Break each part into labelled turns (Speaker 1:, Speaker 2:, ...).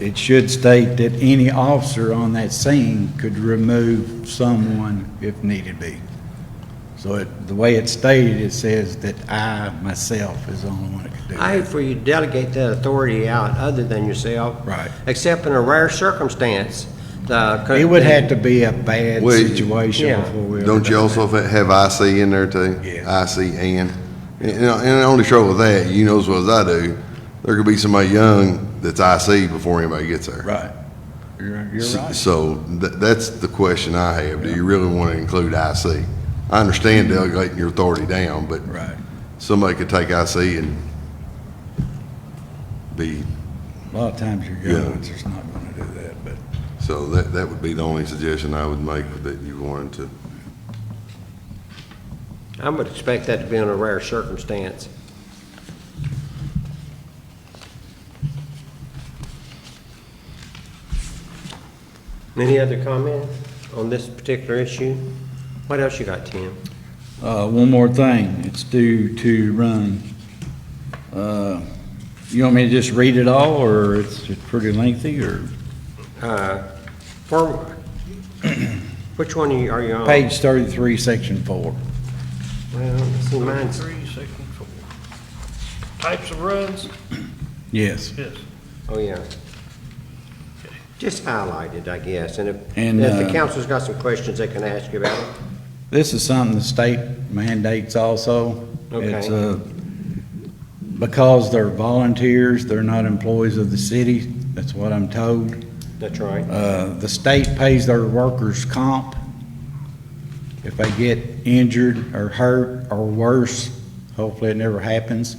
Speaker 1: it should state that any officer on that scene could remove someone if needed be. So it, the way it's stated, it says that I, myself, is the only one that could do
Speaker 2: I
Speaker 1: it.
Speaker 2: hate for you to delegate that authority out other than yourself.
Speaker 1: Right.
Speaker 2: Except in a rare circumstance. the co-
Speaker 1: It would have to be a bad
Speaker 3: Well,
Speaker 1: situation
Speaker 2: yeah.
Speaker 1: before we. ever
Speaker 3: Don't
Speaker 1: do
Speaker 3: you
Speaker 1: that.
Speaker 3: also fa- have IC in there too?
Speaker 1: Yeah.
Speaker 3: IC and, and, and the only trouble with that, you know as well as I do, there could be somebody young that's IC before anybody gets there.
Speaker 1: Right. You're, you're
Speaker 3: S-
Speaker 1: right.
Speaker 3: So tha- that's the question I have. Do you really want to include IC? I understand delegating your authority down, but
Speaker 1: Right.
Speaker 3: somebody could take IC and be,
Speaker 1: A lot of times your
Speaker 3: Yeah.
Speaker 1: government's just not gonna do that, but.
Speaker 3: so that, that would be the only suggestion I would make that you wanted to.
Speaker 2: I would expect that to be in a rare circumstance. Any other comment on this particular issue? What else you got, Tim?
Speaker 1: Uh, one more thing, it's due to run. Uh, You want me to just read it all, or it's it's pretty lengthy, or?
Speaker 2: Uh, For, which one are you- are you on?
Speaker 1: Page thirty-three, section four.
Speaker 2: Well, see, mine's,
Speaker 4: Three, section four. Types of runs,
Speaker 1: Yes.
Speaker 4: yes.
Speaker 2: oh, yeah. Just highlighted, I guess, and if,
Speaker 1: And,
Speaker 2: if the
Speaker 1: uh,
Speaker 2: council's got some questions they can ask you about it.
Speaker 1: This is something the state mandates also.
Speaker 2: Okay.
Speaker 1: It's, uh, because they're volunteers, they're not employees of the city, that's what I'm told.
Speaker 2: That's right.
Speaker 1: Uh, the state pays their workers' comp if they get injured or hurt or worse. Hopefully, it never happens.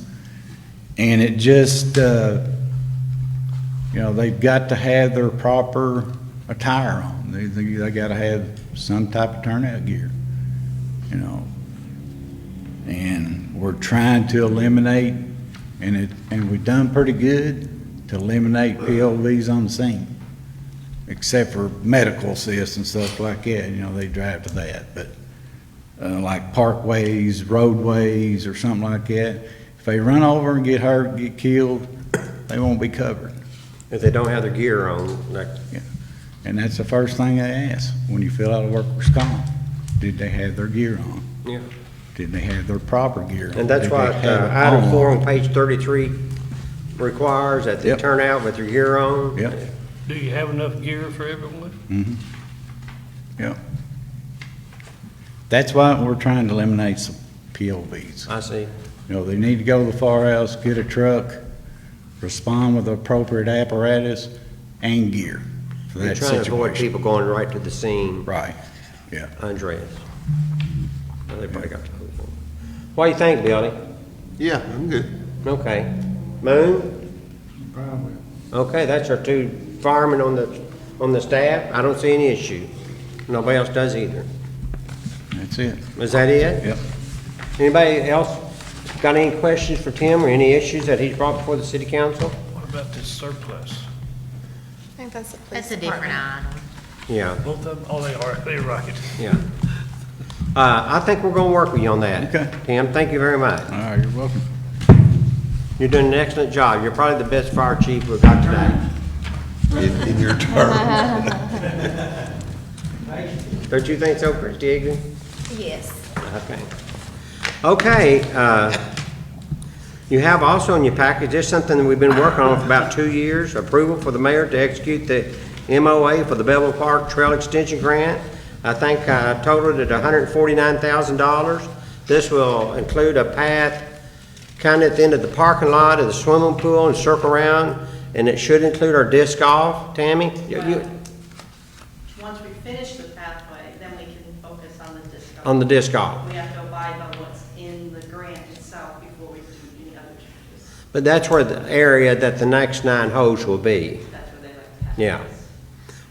Speaker 1: And it just, uh, you know, they've got to have their proper attire on. They, they, they gotta have some type of turnout gear, you know. And we're trying to eliminate, and it, and we've done pretty good to eliminate PLVs on the scene except for medical assist and stuff like that, you know, they drive to that, but, uh, like parkways, roadways, or something like that, if they run over and get hurt, get killed, they won't be covered.
Speaker 2: If they don't have their gear on, like,
Speaker 1: And that's the first thing they ask when you fill out a workers' comp. Did they have their gear on?
Speaker 2: yeah.
Speaker 1: Did they have their proper gear on?
Speaker 2: And that's
Speaker 1: Did they
Speaker 2: why
Speaker 1: have
Speaker 2: uh,
Speaker 1: it
Speaker 2: item
Speaker 1: on?
Speaker 2: four on page thirty-three requires that they
Speaker 1: Yep.
Speaker 2: turn out with their gear on.
Speaker 1: Yep.
Speaker 4: Do you have enough gear for everyone?
Speaker 1: Yep. That's why we're trying to eliminate some PLVs.
Speaker 2: I see.
Speaker 1: You know, they need to go to the firehouse, get a truck, respond with appropriate apparatus and gear for
Speaker 2: You're
Speaker 1: that
Speaker 2: trying to avoid
Speaker 1: situation.
Speaker 2: people going right to the scene
Speaker 1: Right, yeah.
Speaker 2: undressed. Well, They probably got the whole thing. What do you think, Billy?
Speaker 3: Yeah, I'm good.
Speaker 2: Okay. Moon? Okay, that's our two firemen on the, on the staff. I don't see any issue. Nobody else does either.
Speaker 1: That's it,
Speaker 2: Is that it?
Speaker 1: yep.
Speaker 2: Anybody else got any questions for Tim or any issues that he's brought before the city council?
Speaker 4: What about this surplus?
Speaker 5: I think that's the police
Speaker 6: That's a different
Speaker 5: department.
Speaker 6: item.
Speaker 2: Yeah,
Speaker 4: Both of them, oh, they are, they're right.
Speaker 2: yeah. Uh, I think we're gonna work with you on that.
Speaker 1: Okay.
Speaker 2: Tim, thank you very much.
Speaker 1: All right, you're welcome.
Speaker 2: You're doing an excellent job. You're probably the best fire chief we've got today.
Speaker 3: In, in your term.
Speaker 2: Don't you think so, Chris Digby?
Speaker 6: Yes.
Speaker 2: Okay. Okay, uh, you have also in your package, this is something that we've been working on for about two years, approval for the mayor to execute the MOA for the Bevel Park Trail Extension Grant. I think uh, totaled at $149,000. This will include a path kind of at the end of the parking lot of the swimming pool and circle around, and it should include our disc golf, Tammy? you- you-
Speaker 7: Once we finish the pathway, then we can focus on the disc golf.
Speaker 2: On the disc golf.
Speaker 7: We have to abide by what's in the grant itself before we do any other changes.
Speaker 2: But that's where the area that the next nine holes will be.
Speaker 7: That's where they like to have.
Speaker 2: Yeah.
Speaker 7: this.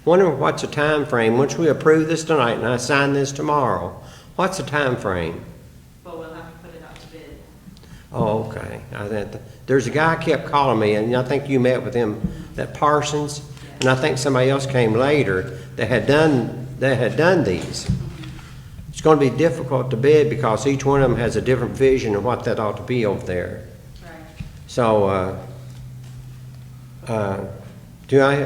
Speaker 2: Wondering what's the time frame? once we approve this tonight and I sign this tomorrow, what's the time frame?
Speaker 7: But we'll have to put it out to bid.
Speaker 2: Oh, okay. I think- There's a guy kept calling me, and I think you met with him, that Parsons, and I think somebody else came later that had done, that had done these. It's gonna be difficult to bid because each one of them has a different vision of what that ought to be over there.
Speaker 7: Right.
Speaker 2: So, uh, uh, do I,